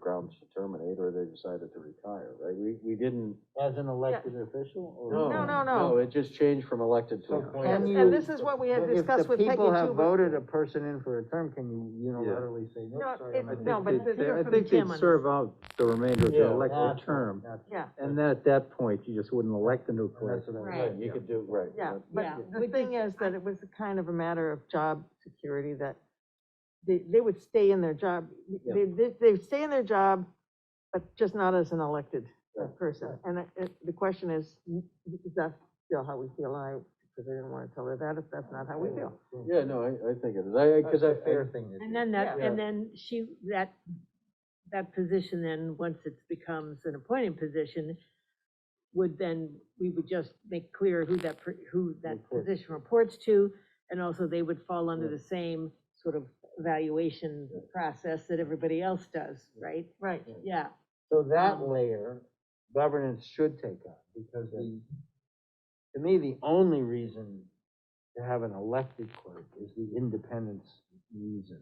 grounds to terminate, or they decided to retire, right? We, we didn't. As an elected official or? No, no, no. No, it just changed from elected to. So appointed. can And, you- and this is what we had But if discussed the with Peggy people have too. voted a person in for a term, can you unilaterally say, no, No, sorry, I'm it- not no, doing but it." the- I from think Jim they'd on serve out the remainder of Yeah, the elected that's- term, that's- Yeah, and then at that point, you just wouldn't elect a new that's person. what I- Right. You could do, right. yeah, Yeah, but the which thing is- is that it was kind of a matter of job security that they, they would stay in their job, they, they, they stay in their job, but just not as an elected uh, Right, person. And it- it, the question is, is that still how we feel? I, because I didn't want to tell her that if that's not how we feel. Yeah, no, I, I think it is, I, I, That's cause I, a I- fair thing to do. And then that, Yeah. and then she, that, that position then, once it becomes an appointed position, would then, we would just make clear who that, per- who that Report. position reports to, and also they would fall under the same sort of evaluation process that everybody else does, right? Right. Yeah, So that Um, layer, governance should take on, because the, to me, the only reason to have an elected clerk is the independence reason.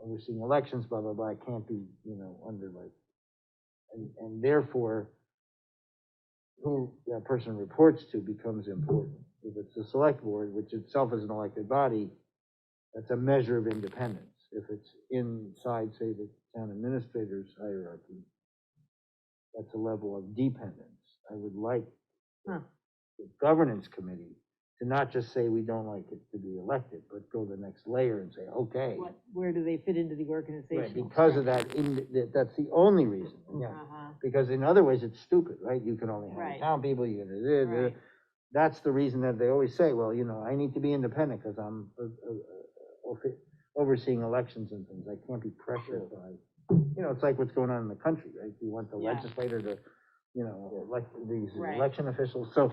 Overseeing elections, blah, blah, blah, can't be, you know, under like, and, and therefore, who that person reports to becomes important. If it's the select board, which itself is an elected body, that's a measure of independence. If it's inside, say, the town administrator's hierarchy, that's a level of dependence. I would like Huh. the governance committee to not just say we don't like it to be elected, but go the next layer and say, okay. what, where do they fit into the organization? Because of that, in- that- that's the only reason. Uh-huh, Because in other ways, it's stupid, right? You can only hire Right. town people, you can, da- da- da. right, that's the reason that they always say, well, you know, I need to be independent because I'm uh, uh, uh, over- overseeing elections and things. I can't be pressured by, you know, it's like what's going on in the country, right? You want the Yeah. legislator to, you know, elect these Right. election officials. So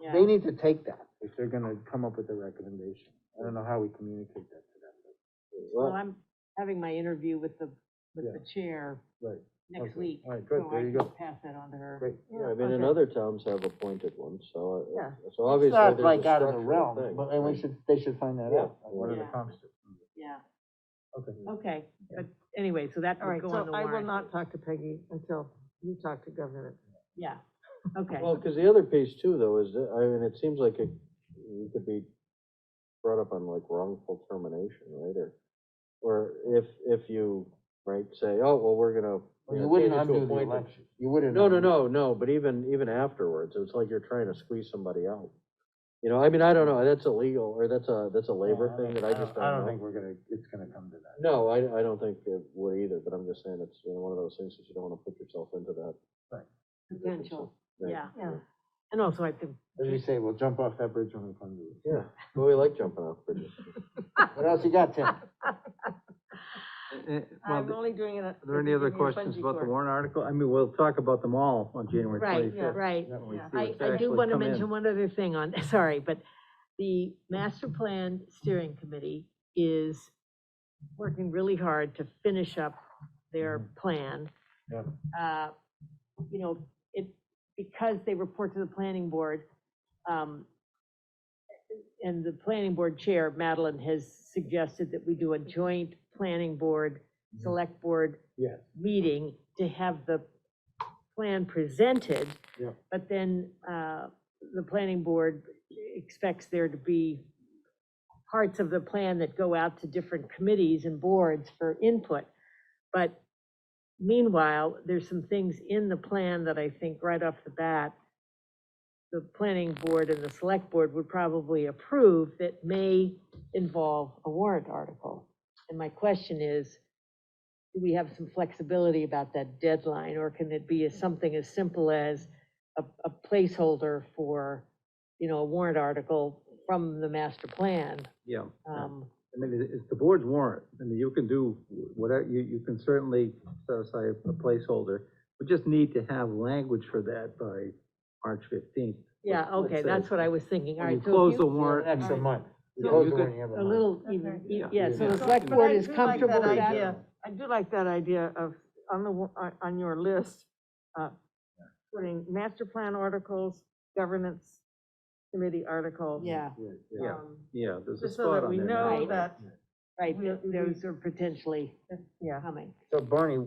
yeah. they need to take that if they're going to come up with a recommendation. I don't know how we communicate that to them. Well, I'm having my interview with the, with Yeah. the chair but- Right. next Okay. week. All right, good. so There I you can go. Pass that on to her. Great. yeah, I mean, Okay. and other towns have appointed ones, so, uh, Yeah. so It's obviously not there's like a out of the structural realm, thing. but, and we should, they should find that Yeah. out. What are the Yeah. constitutes? Yeah, Okay. okay, Yeah. but anyway, so that All would right, go on so the I will warrant. not talk to Peggy until you talk to governance. Yeah, okay, Well, because the other piece too, though, is, that I mean, it seems like it, you could be brought up on like wrongful termination, right, or, or if, if you, right, say, oh, well, we're gonna. Well, You know, wouldn't change it to undo the appointed." election. You wouldn't. No, no, undo- no, no, but even, even afterwards, it's like you're trying to squeeze somebody out. You know, I mean, I don't know, that's illegal, or that's a, that's a labor Yeah, thing that I just I don't don't know. think we're gonna, it's gonna come to that. No, I, I don't think it would either, but I'm just saying it's, you know, one of those things that you don't wanna put yourself into that. potential, Right. yeah. Yeah. And also I think, As we say, we'll jump off that bridge when we come to it. Yeah, but we like jumping off bridges. What else you got, Tim? Eh, Well, I'm are only doing it. Are there any other questions about the warrant article? I mean, we'll talk about them all on January right, twenty-fifth. right. Yeah. I, I do want to mention one other thing on, sorry, but the master plan steering committee is working really hard to finish up their plan. Mm-hmm. Yeah. Uh, You know, it, because they report to the planning board, um, and the planning board chair, Madeline, has suggested that we do a joint planning board, select board Mm-hmm. Yes. meeting to have the plan presented. Yeah. But then, uh, the planning board expects there to be parts of the plan that go out to different committees and boards for input. But meanwhile, there's some things in the plan that I think right off the bat, the planning board and the select board would probably approve that may involve a warrant article. And my question is, do we have some flexibility about that deadline, or can it be as- something as simple as a, a placeholder for, you know, a warrant article from the master plan? Yeah, I Um, mean, it- it's the board's warrant, I mean, you can do whatever, you, you can certainly set aside a placeholder. We just need to have language for that by March fifteenth. Yeah, Let's okay, say- that's what I was thinking, all When you right. so if close you- the warrant. Next All right. month. We So close you the could- warrant every A month. little Okay. even, Yeah. yeah, so Yeah. the select But I board is do like comfortable that with that. idea. I do like that idea of, on the, wa- on- on your list, uh, putting master plan articles, governance committee articles. Yeah, Yeah, yeah. Yeah, um, yeah, there's a Just so spot that on we there. now. know Right. that, right, We- we- those are potentially yeah. coming. So Barney,